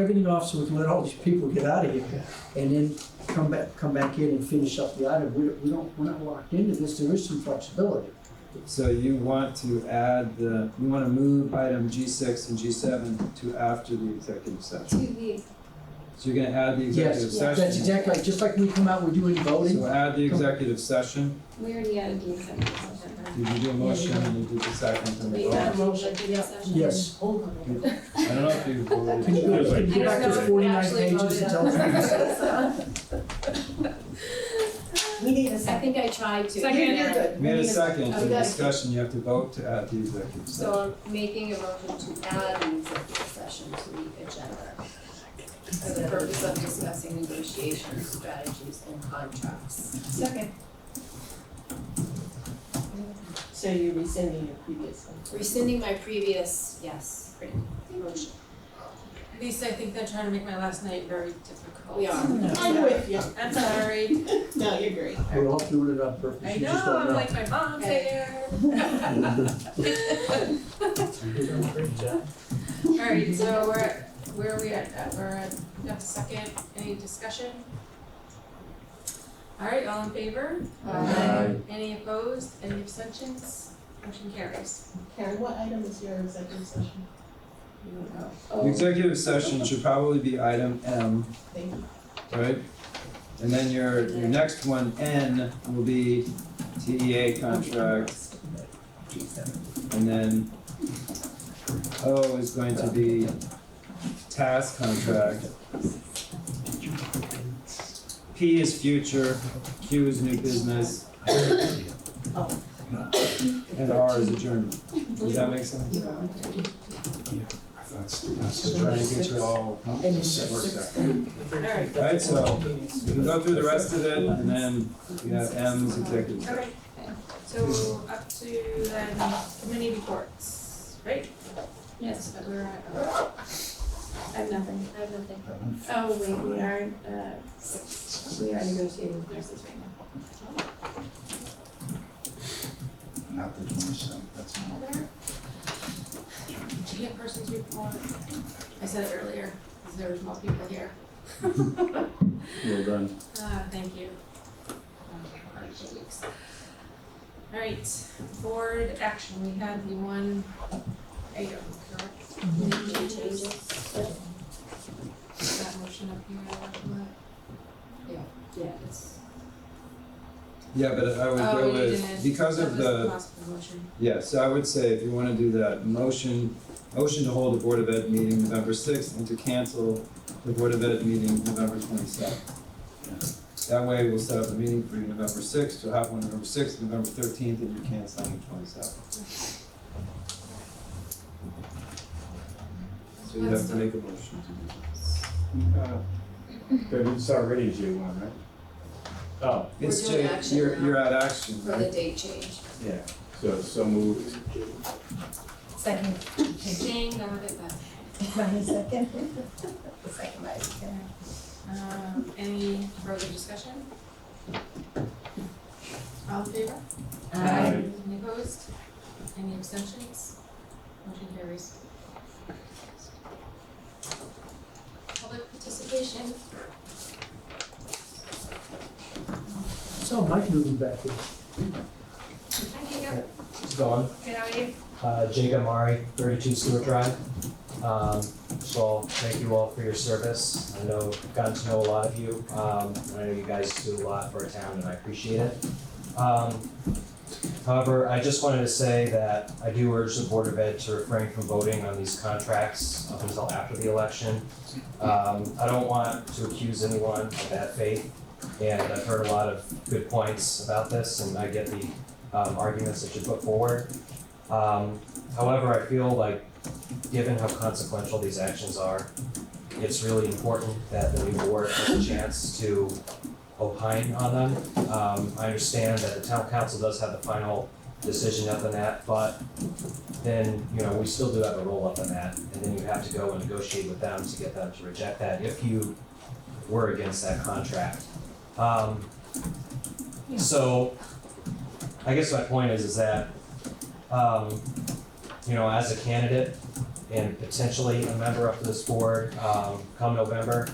Revenue officer would let all these people get out of here and then come back, come back in and finish up the item. We don't, we don't, we're not locked into this. There is some flexibility. So you want to add the, you want to move item G6 and G7 to after the executive to session. the, So you're going to add the executive Yes, session. that's uh, exactly, like- just like we come out, we're doing voting. So add the executive session. we already added the executive session, right? Did you do a motion and you did the second and the We vote? added the executive session. Yes. I don't know if you voted. Can you go can you go back to I don't know if we forty-nine actually pages and tell voted on us? that. We need a I second. think I tried to. Second. You're good. We had need a second for Okay. discussion, you have to vote to add the executive session. So I'm making a motion to add an executive session to the agenda for the purpose of discussing negotiation strategies and contracts. Second. So you're rescinding your previous one? Rescinding my previous, yes, motion. Lisa, I think they're trying to make my last night very difficult. We are. I'm with you. I'm sorry. No, you're great. We're all doing it on purpose. I You just know, don't I'm know. like, my mom's here. Alright, so we're, where are we at? Uh, We're at, we have a second, any discussion? Alright, all in favor? Aye. Any opposed, any abstentions? Motion carries. Karen, what item is your executive session? You don't know. Oh, The executive session should probably be item M, Thank you. right? And then your, your next one, N, will be TEA contract, and then O is going to be task contract. P is future, Q is new business. Oh. And R is adjournment. Does that make sense? That's, that's Trying to get you all. Alright, Alright, so we can go through the rest of it and then we have M's executive. session. okay, so up to then committee reports, right? Yes, but we're at, uh, I have nothing. I have nothing. Oh, wait, we are, uh, we are negotiating with nurses right now. Not the twenty-seventh, that's not. Key persons report. I said it earlier, because there was more people here. Well done. Ah, thank you. Um, hard two weeks. All right, board action, we had the one item, correct? Mm-hmm. Any changes? Is That motion up here, what? Yeah, it's. Yeah, but I would Oh, go you with, didn't. Uh, because That of was the, possible motion. yeah, so I would say if you wanna do that, motion, motion to hold a Board of Ed meeting November sixth and to cancel the Board of Ed meeting November twenty-seventh. That way we'll set up a meeting for you November sixth, you'll have one November sixth, November thirteenth, and you cancel on the twenty-seventh. So you have to make a motion to do that. But Uh, it's already G one, right? Oh, It's We're doing cha- action you're, now. you're at action, For the right? date change. yeah, so, so moved. Second. Dang, I would like that. Brian, second. Second by Karen. Um, any further discussion? All in favor? Aye. Any opposed? Any abstentions? Motion carries. Public participation. So Mike moving back in. Hi, Jacob. It's going. Good, how are you? Uh, Jake Amari, 32 Stewart Drive. Um, So thank you all for your service. I know, I've gotten to know a lot of you. Um, and I know you guys do a lot for our town and I appreciate it. Um, However, I just wanted to say that I do urge the Board of Ed to refrain from voting on these contracts up until after the election. Um, I don't want to accuse anyone of bad faith. And I've heard a lot of good points about this and I get the um, arguments that you put forward. Um, however, I feel like, given how consequential these actions are, it's really important that the new board has a chance to opine on them. Um, I understand that the town council does have the final decision up on that, but then, you know, we still do have a roll up on that, and then you have to go and negotiate with them to get them to reject that if you were against that contract. Um, so, I guess my point is, is that um, you know, as a candidate, and potentially a member of this board, um, come November,